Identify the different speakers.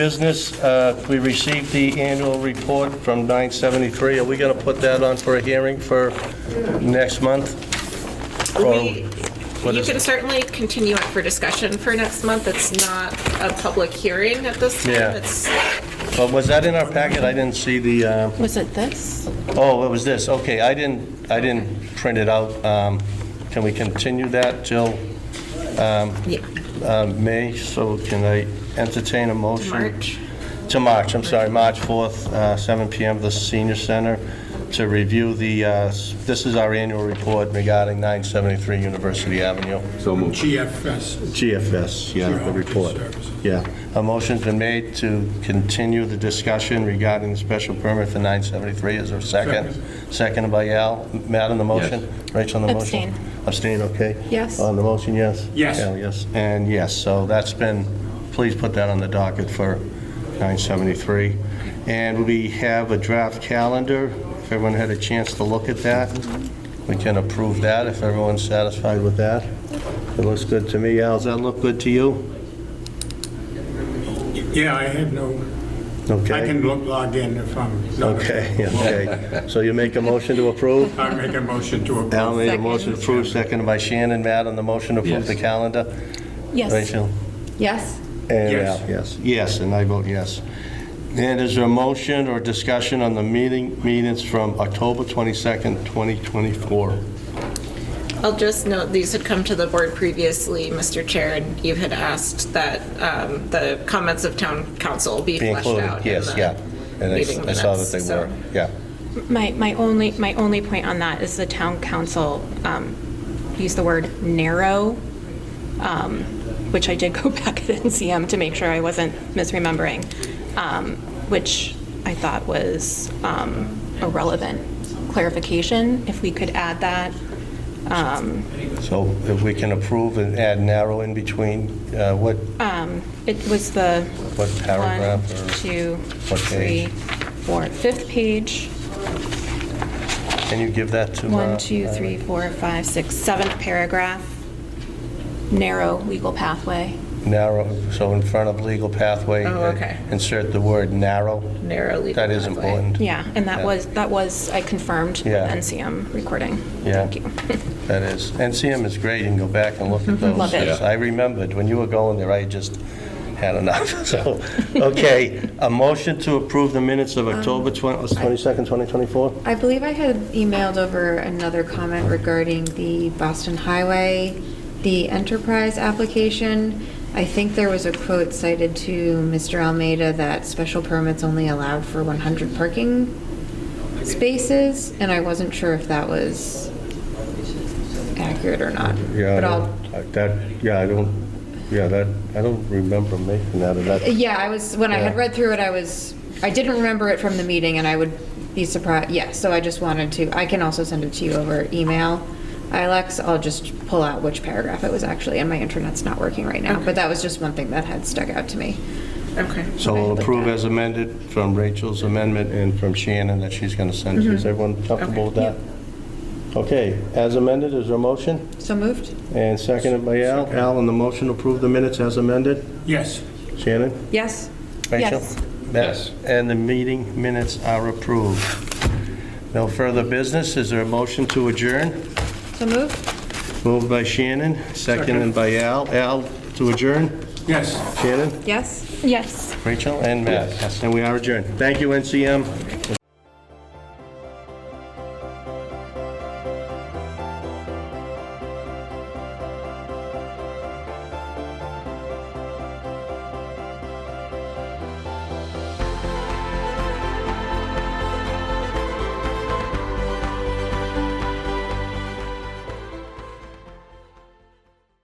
Speaker 1: Business, uh, we received the annual report from 973. Are we going to put that on for a hearing for next month? Or
Speaker 2: We,
Speaker 1: what
Speaker 2: you
Speaker 1: is
Speaker 2: can
Speaker 1: it?
Speaker 2: certainly continue it for discussion for next month. It's not a public hearing at this time.
Speaker 1: Yeah.
Speaker 2: It's,
Speaker 1: Oh, Was that in our packet? I didn't see the, uh,
Speaker 3: Was it this?
Speaker 1: oh, it was this, okay, I didn't, I didn't print it out. Um, Can we continue that till
Speaker 2: yeah,
Speaker 1: uh, May? So can I entertain a motion?
Speaker 2: March.
Speaker 1: To March, I'm sorry, March 4th, uh, 7 PM, the Senior Center, to review the, uh, s- this is our annual report regarding 973 University Avenue.
Speaker 4: So moved.
Speaker 5: GFS.
Speaker 1: GFS, yeah, the
Speaker 5: Geography
Speaker 1: report.
Speaker 5: Services.
Speaker 1: Yeah. A motion's been made to continue the discussion regarding the special permit for 973. Is there a second? Seconded by Al. Matt on the motion? Rachel on the motion?
Speaker 3: Abstain.
Speaker 1: Abstain, okay.
Speaker 3: Yes.
Speaker 1: On the motion, yes?
Speaker 5: Yes.
Speaker 1: Al, yes. And yes, so that's been, please put that on the docket for 973. And we have a draft calendar. If everyone had a chance to look at that, we can approve that if everyone's satisfied with that. It looks good to me. Al, does that look good to you?
Speaker 5: Yeah, I had no,
Speaker 1: Okay.
Speaker 5: I can look log in if I'm not.
Speaker 1: Okay, okay. So you make a motion to approve?
Speaker 5: I make a motion to
Speaker 1: Al
Speaker 5: approve.
Speaker 1: made a motion to approve, seconded by Shannon. Matt on the motion to approve the
Speaker 4: Yes.
Speaker 1: calendar?
Speaker 3: Yes.
Speaker 1: Rachel?
Speaker 3: Yes.
Speaker 1: And
Speaker 5: Yes.
Speaker 1: Al, yes. Yes, and I vote yes. And is there a motion or discussion on the meeting minutes from October 22nd, 2024?
Speaker 2: I'll just note, these had come to the board previously, Mr. Chair, and you had asked that um, the comments of town council
Speaker 1: Be
Speaker 2: be fleshed
Speaker 1: included,
Speaker 2: out in
Speaker 1: yes, yeah.
Speaker 2: the
Speaker 1: And I
Speaker 2: meeting
Speaker 1: I saw that
Speaker 2: minutes,
Speaker 1: they
Speaker 2: so-
Speaker 1: were, yeah.
Speaker 3: My, my only, my only point on that is the town council um, used the word narrow, um, which I did go back at NCM to make sure I wasn't misremembering, um, which I thought was um, a relevant clarification, if we could add that. Um,
Speaker 1: So if we can approve and add narrow in between, uh, what,
Speaker 3: It was the.
Speaker 1: What paragraph
Speaker 3: One,
Speaker 1: or
Speaker 3: two,
Speaker 1: what
Speaker 3: three,
Speaker 1: page?
Speaker 3: four, fifth page.
Speaker 1: can you give that to? uh,
Speaker 3: One, two, three, four, five, six, seventh paragraph, narrow legal pathway.
Speaker 1: Narrow, so in front of legal pathway.
Speaker 2: Oh, okay.
Speaker 1: Insert the word narrow.
Speaker 2: narrowly.
Speaker 1: That is
Speaker 2: pathway.
Speaker 1: important.
Speaker 3: Yeah, and that
Speaker 1: Yeah.
Speaker 3: was, that was, I confirmed with
Speaker 1: Yeah.
Speaker 3: NCM recording.
Speaker 1: Yeah.
Speaker 3: Thank you.
Speaker 1: That is. NCM is great, you can go back and look at
Speaker 6: Mm-hmm.
Speaker 1: those.
Speaker 3: Love it.
Speaker 1: I remembered, when you were going there, I just had enough, so, okay. A motion to approve the minutes
Speaker 6: Um,
Speaker 1: of October uh, 20 22nd, 2024?
Speaker 6: I believe I had emailed over another comment regarding the Boston Highway, the enterprise application. I think there was a quote cited to Mr. Almeida that special permits only allowed for 100 parking spaces, and I wasn't sure if that was accurate or not.
Speaker 1: Yeah, I
Speaker 6: But I'll
Speaker 1: don't- I- that, yeah, I don't, yeah, that, I don't remember making that, or that,
Speaker 6: uh, Yeah, I was, when I had
Speaker 1: Yeah.
Speaker 6: read through it, I was, I didn't remember it from the meeting, and I would be surprised, yeah, so I just wanted to, I can also send it to you over email, Alex, I'll just pull out which paragraph it was actually, and my internet's not working right now, but that was just one thing that had stuck out to me.
Speaker 2: Okay.
Speaker 1: so we'll approve as amended from Rachel's amendment and from Shannon that she's going to send
Speaker 6: Mm-hmm.
Speaker 1: to. Is everyone comfortable with that? Okay, as amended, is there a motion?
Speaker 6: So moved?
Speaker 1: And seconded by Al. Al, on the motion, approve the minutes as amended?
Speaker 5: Yes.
Speaker 1: Shannon?
Speaker 6: Yes.
Speaker 1: Rachel?
Speaker 3: Yes.
Speaker 1: Matt?
Speaker 4: Yes.
Speaker 1: And the meeting minutes are approved. No further business. Is there a motion to adjourn?
Speaker 6: So moved?
Speaker 1: Moved by Shannon, seconded by Al. Al, to adjourn?
Speaker 5: Yes.
Speaker 1: Shannon,
Speaker 6: Yes.
Speaker 3: Yes.
Speaker 1: Rachel, and Matt.
Speaker 4: Yes.
Speaker 1: And we are adjourned. Thank you, NCM.